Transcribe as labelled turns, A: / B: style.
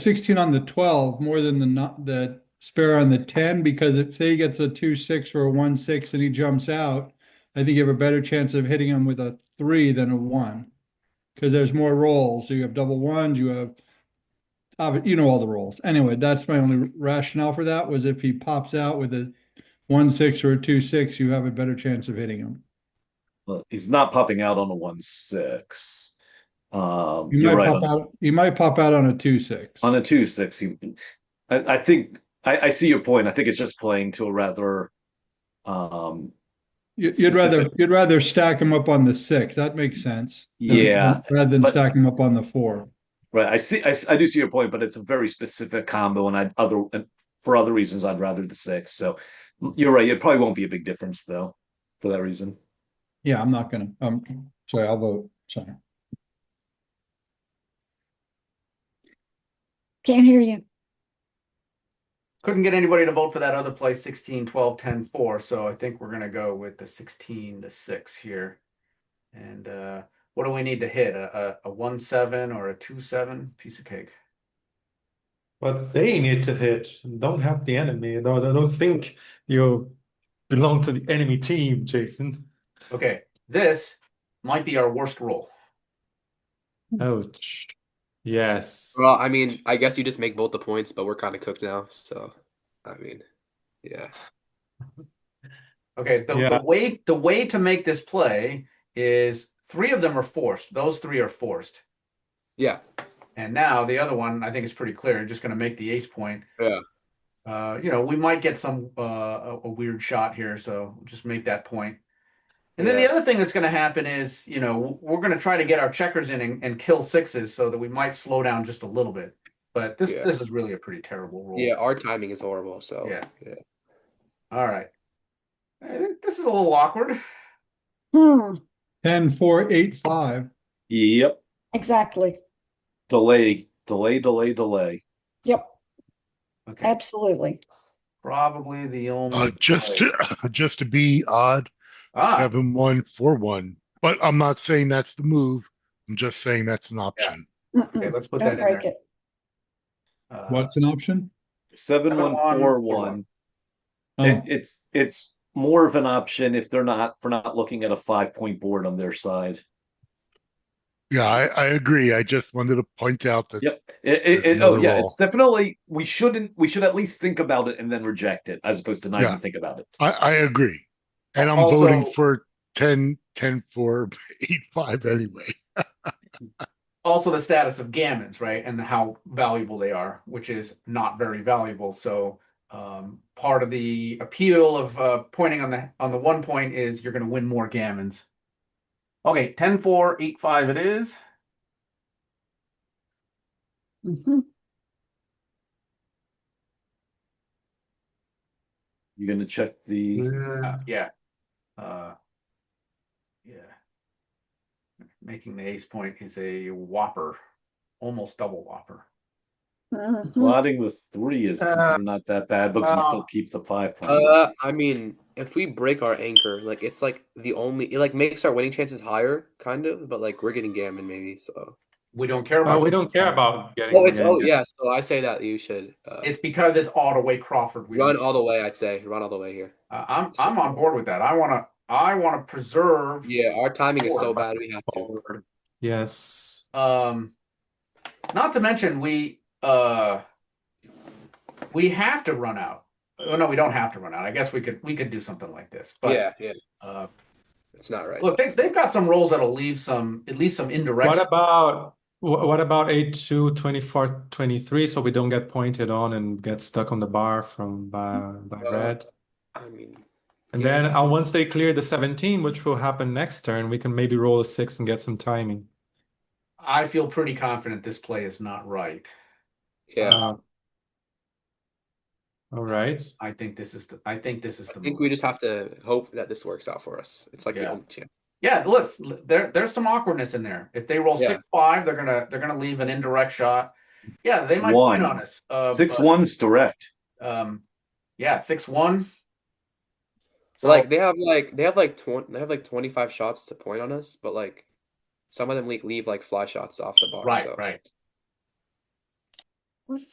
A: sixteen on the twelve more than the not, the spare on the ten, because if say he gets a two, six or a one, six and he jumps out, I think you have a better chance of hitting him with a three than a one. Cause there's more rolls. So you have double ones, you have, obvi- you know, all the rolls. Anyway, that's my only rationale for that was if he pops out with a one, six or a two, six, you have a better chance of hitting him.
B: Well, he's not popping out on a one six. Um,
A: You
B: you're
A: might
B: right.
A: pop
B: on-
A: out, you might pop out on a two, six.
B: On a two six, he, I, I think, I, I see your point. I think it's just playing to a rather, um,
A: You- You'd rather,
B: specific.
A: you'd rather stack them up on the six. That makes sense. than-
B: Yeah,
A: Rather than
B: but-
A: stack them up on the four.
B: right. I see, I, s- I do see your point, but it's a very specific combo, and I'd other, and for other reasons, I'd rather the six. So mm, you're right. It probably won't be a big difference though, for that reason.
A: Yeah, I'm not gonna, um, sorry, I'll vote, sorry.
C: Can't hear you.
D: Couldn't get anybody to vote for that other play 16, 12, 10, 4. So I think we're going to go with the 16 to 6 here. And uh, what do we need to hit? A, a, a 1 7 or a 2 7? Piece of cake.
E: But they need to hit. Don't help the enemy. Don't, don't think you belong to the enemy team, Jason.
D: Okay. This might be our worst roll.
E: Ouch. Yes.
F: Well, I mean, I guess you just make both the points, but we're kind of cooked now. So, I mean, yeah.
D: Okay. The,
E: Yeah.
D: the way the way to make this play is three of them are forced. Those three are forced.
F: Yeah.
D: And now the other one, I think is pretty clear. You're just going to make the ace point.
F: Yeah.
D: Uh, you know, we might get some uh, a, a weird shot here, so just make that point. And then
F: Yeah.
D: the other thing that's going to happen is, you know, w- we're going to try to get our checkers in and, and kill sixes so that we might slow down just a little bit. But this
F: Yeah.
D: this is really a pretty terrible rule.
F: Yeah. Our timing is horrible. So,
D: Yeah.
F: yeah.
D: All right. I think this is a little awkward.
C: Hmm,
A: Ten, four, eight, five.
B: Yep.
C: exactly.
B: Delay, delay, delay, delay.
C: Yep,
D: Okay.
C: absolutely.
D: Probably the only
G: Uh, just
D: play.
G: to, just to be odd,
D: Um, ah,
G: seven one four one. But I'm not saying that's the move. I'm just saying that's an option.
D: okay,
C: Mm-mm,
D: let's put that
C: Don't
D: in
C: break
D: there.
C: it.
D: Uh,
A: What's an option?
B: Seven one four one. It,
A: Oh,
B: it's, it's more of an option if they're not, for not looking at a five point board on their side.
G: Yeah, I, I agree. I just wanted to point out that
B: Yep. It, it,
G: There's
B: it- oh
G: another
B: yeah,
G: roll.
B: it's definitely we shouldn't we should at least think about it and then reject it as opposed to not
G: Yeah.
B: even think about it.
G: I, I agree. And I'm
D: Also-
G: voting for 10, 10, 4, 8, 5 anyway.
D: also the status of gammons, right, and how valuable they are, which is not very valuable. So um, part of the appeal of uh, pointing on the on the one point is you're going to win more gammons. Okay, 10 4, 8 5 it is.
C: Mhm.
B: You're gonna check the
D: Uh,
E: Yeah.
D: yeah. Uh, yeah. Making the ace point is a whopper, almost double whopper.
G: Mm-hmm.
C: Mhm.
B: plotting the three is
D: Uh,
B: considered not that bad, but we
D: well.
B: still keep the five point.
F: Uh, I mean, if we break our anchor, like it's like the only, it like makes our winning chances higher, kind of, but like we're getting gammon maybe. So,
D: We don't care about
E: Well, Uh, we
D: it.
E: don't care about getting.
F: oh, it's,
E: the
F: oh,
E: end.
F: yeah. So I say that you should uh,
D: It's because it's Ottaway Crawford. We
F: run
D: don't-
F: all the way, I'd say. Run all the way here.
D: Uh, I'm I'm on board with that. I want to I want to preserve
F: Yeah. Our timing is so
D: Forward.
F: bad. We have to.
E: Forward. Yes.
D: um not to mention we uh we have to run out. Oh no, we don't have to run out. I guess we could we could do something like this. But
F: Yeah. Yeah.
D: uh
F: It's not right.
D: look, they
F: though.
D: they've got some roles that'll leave some at least some indirect
E: What about wh- what about 8 2 24 23 so we don't get pointed on and get stuck on the bar from by, by
F: Well,
E: red?
F: I mean,
E: And
F: yeah.
E: then uh, once they clear the 17, which will happen next turn, we can maybe roll a 6 and get some timing.
D: I feel pretty confident this play is not right.
F: yeah.
E: Uh, all right.
D: I think this is the I think this is
F: I
D: the
F: think
D: move.
F: we just have to hope that this works out for us. It's like
D: Yeah.
F: the only chance.
D: Yeah, look, there there's some awkwardness in there. If they roll
F: Yeah.
D: six five, they're gonna they're gonna leave an indirect shot. Yeah, they
B: It's
D: might
B: one.
D: point on us. Uh,
B: Six
D: but,
B: one's direct.
D: Um, yeah, six one.
F: So like they have like they have like twenty they have like twenty five shots to point on us, but like some of them like leave like fly shots off the bar.
D: right,
F: so
D: right.